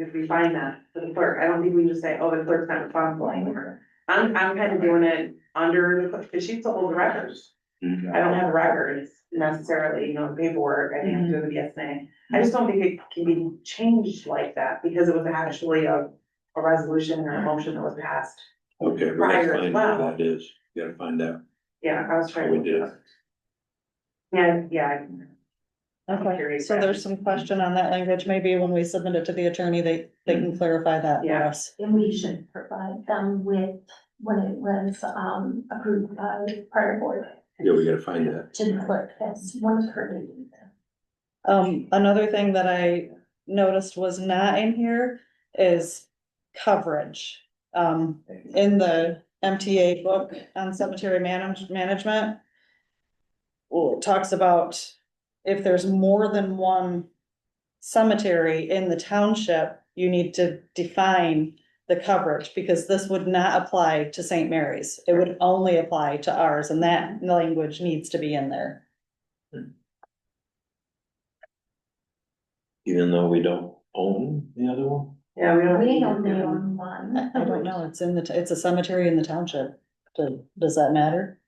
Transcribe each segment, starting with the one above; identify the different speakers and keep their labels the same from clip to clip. Speaker 1: if we find that for the clerk, I don't think we just say, oh, the clerk's not responsible anymore. I'm, I'm kind of doing it under the, clerk, cause she's the old records.
Speaker 2: Mm-hmm.
Speaker 1: I don't have records necessarily, you know, paperwork, I think I'm doing the BSNA. I just don't think it can be changed like that because it was actually a, a resolution or a motion that was passed.
Speaker 2: Okay, we
Speaker 1: Prior
Speaker 2: gotta
Speaker 1: as
Speaker 2: find out
Speaker 1: well.
Speaker 2: what that is, We gotta find out.
Speaker 1: Yeah, I was trying. to
Speaker 2: We did.
Speaker 1: Yeah, yeah,
Speaker 3: Okay,
Speaker 1: Curious
Speaker 3: so there's
Speaker 1: about
Speaker 3: some question on that language, maybe when we submit it to the attorney, they, they can clarify that for
Speaker 1: Yeah.
Speaker 3: us.
Speaker 4: And we should provide them with, when it was, um, approved by prior board
Speaker 2: Yeah, we gotta find that.
Speaker 4: to the clerk, that's one of her duties.
Speaker 3: Um, another thing that I noticed was not in here is coverage. Um, in the MTA book on cemetery manage- management. Well, it talks about if there's more than one cemetery in the township, you need to define the coverage, because this would not apply to Saint Mary's. It would only apply to ours, and that language needs to be in there.
Speaker 2: Even though we don't own the other one?
Speaker 1: yeah, we don't.
Speaker 4: We only own one.
Speaker 3: I don't know, it's in the, t- it's a cemetery in the township. Do- Does that matter?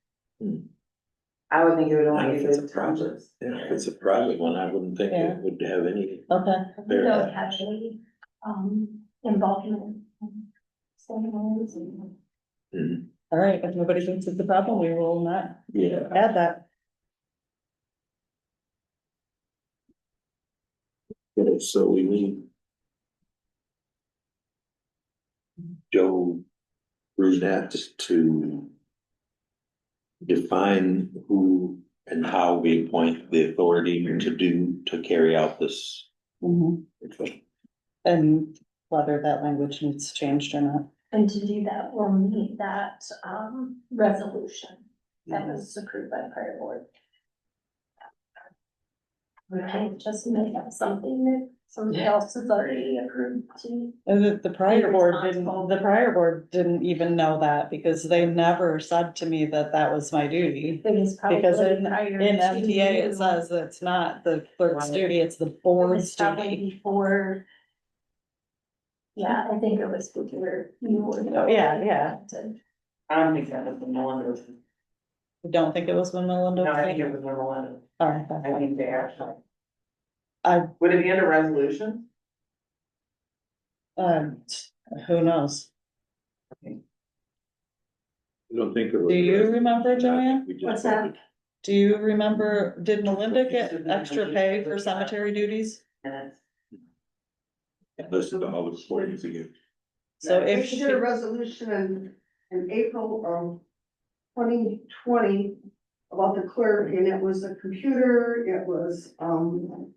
Speaker 1: I would think it would
Speaker 2: I
Speaker 1: only be
Speaker 2: think it's a
Speaker 1: the
Speaker 2: problem.
Speaker 1: townships.
Speaker 2: Yeah, if it's a private one, I wouldn't think
Speaker 3: Yeah.
Speaker 2: it would have any,
Speaker 3: Okay,
Speaker 4: We don't have any, um, involvement. in ceremonies and-
Speaker 2: Mhm.
Speaker 3: all right, if nobody thinks it's a problem, we will not
Speaker 2: yeah,
Speaker 3: add that.
Speaker 2: Yeah, so we need. Joe Brunette to. Define who and how we appoint the authority to do, to carry out this.
Speaker 1: Mm-hmm.
Speaker 3: And whether that language needs changed or not.
Speaker 4: And to do that, we'll need that, um, resolution that was approved by prior board. We can't just make up something that somebody else has already approved to.
Speaker 3: And the, the prior
Speaker 4: Be
Speaker 3: board didn't,
Speaker 4: responsible.
Speaker 3: the prior board didn't even know that because they never said to me that that was my duty.
Speaker 4: It is probably.
Speaker 3: Because in-
Speaker 4: prior
Speaker 3: In
Speaker 4: to
Speaker 3: MTA,
Speaker 4: you.
Speaker 3: it says that it's not the clerk's duty, it's the board's
Speaker 4: It's probably
Speaker 3: duty.
Speaker 4: before. Yeah, I think it was before you were.
Speaker 3: Oh, yeah, yeah.
Speaker 1: I don't think that was the Melinda's,
Speaker 3: You Don't think it was when Melinda.
Speaker 1: no, I think
Speaker 3: came?
Speaker 1: it was the Melinda,
Speaker 3: All right, that's
Speaker 1: I
Speaker 3: fine.
Speaker 1: think they actually.
Speaker 3: I-
Speaker 1: Would it be under resolution?
Speaker 3: um, who knows?
Speaker 2: I don't think it was.
Speaker 3: Do you remember, Joanne?
Speaker 2: We just-
Speaker 4: What's that?
Speaker 3: Do you remember, did Melinda get
Speaker 1: It's in the
Speaker 3: extra
Speaker 1: budget,
Speaker 3: pay
Speaker 1: but
Speaker 3: for
Speaker 1: it's
Speaker 3: cemetery duties?
Speaker 1: And it's.
Speaker 2: Listen to all the recordings again.
Speaker 3: So
Speaker 1: No.
Speaker 3: if
Speaker 5: If
Speaker 3: she,
Speaker 5: did a resolution in, in April of twenty twenty about the clerk, and it was a computer, it was, um,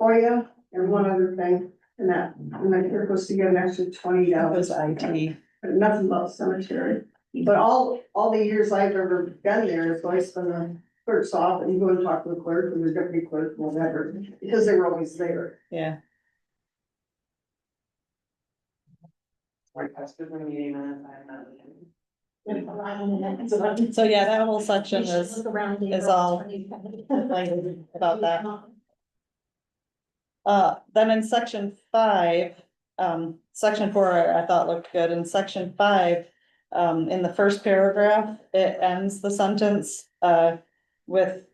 Speaker 5: FOIA and one other thing, and that, and that clerk was to get an extra twenty
Speaker 3: that was
Speaker 5: dollars.
Speaker 3: IT,
Speaker 5: But nothing about cemetery, but all, all the years I've ever been there, it's always been a clerk's off, and you go and talk to the clerk, and the deputy clerk, whatever, because they were always there.
Speaker 3: yeah,
Speaker 1: Like, I stood in a meeting and I'm not.
Speaker 3: so yeah, that whole section is,
Speaker 4: is
Speaker 3: is all about that. uh, then in section five, um, section four, I thought looked good, in section five. Um, in the first paragraph, it ends the sentence, uh, with.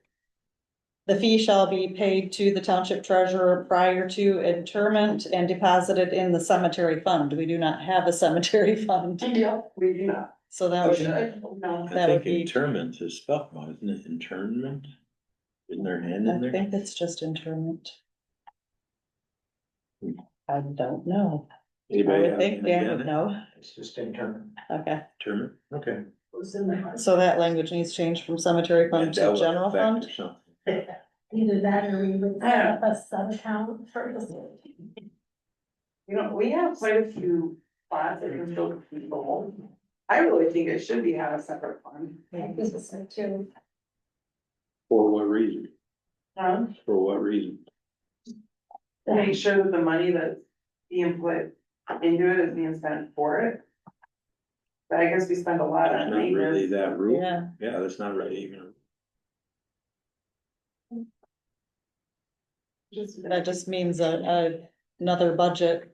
Speaker 3: The fee shall be paid to the township treasurer prior to interment and deposited in the cemetery fund, we do not have a cemetery fund.
Speaker 4: I know.
Speaker 1: We do not.
Speaker 3: So that would, be-
Speaker 1: No.
Speaker 3: That
Speaker 2: Oh, I think
Speaker 3: would be-
Speaker 2: interment is spelled, wrong, isn't it? Internment? Isn't there a hand in
Speaker 3: I
Speaker 2: there?
Speaker 3: think it's just interment. I don't know. I
Speaker 2: Anybody
Speaker 3: would
Speaker 2: have
Speaker 3: think
Speaker 2: anything
Speaker 3: Dan
Speaker 2: on
Speaker 3: would
Speaker 2: it?
Speaker 3: know.
Speaker 2: It's just internment.
Speaker 3: Okay,
Speaker 2: Internment, okay.
Speaker 5: It was in the-
Speaker 3: so that language needs changed from cemetery
Speaker 2: Yeah,
Speaker 3: fund
Speaker 2: that
Speaker 3: to
Speaker 2: would
Speaker 3: general
Speaker 2: affect
Speaker 3: fund.
Speaker 2: or something.
Speaker 4: Either that or we would set up a sub account for the.
Speaker 1: You know, we have quite a few spots that can fill people. I really think it should be have a separate fund.
Speaker 4: I think so too.
Speaker 2: For what reason?
Speaker 1: Um,
Speaker 2: For what reason?
Speaker 1: to make sure that the money that's being put into it is being spent for it. But I guess we spend a lot
Speaker 2: That's
Speaker 1: on
Speaker 2: not really
Speaker 1: maintenance.
Speaker 2: that rule.
Speaker 3: Yeah,
Speaker 2: Yeah, that's not really even.
Speaker 1: Just-
Speaker 3: that just means a, a, another budget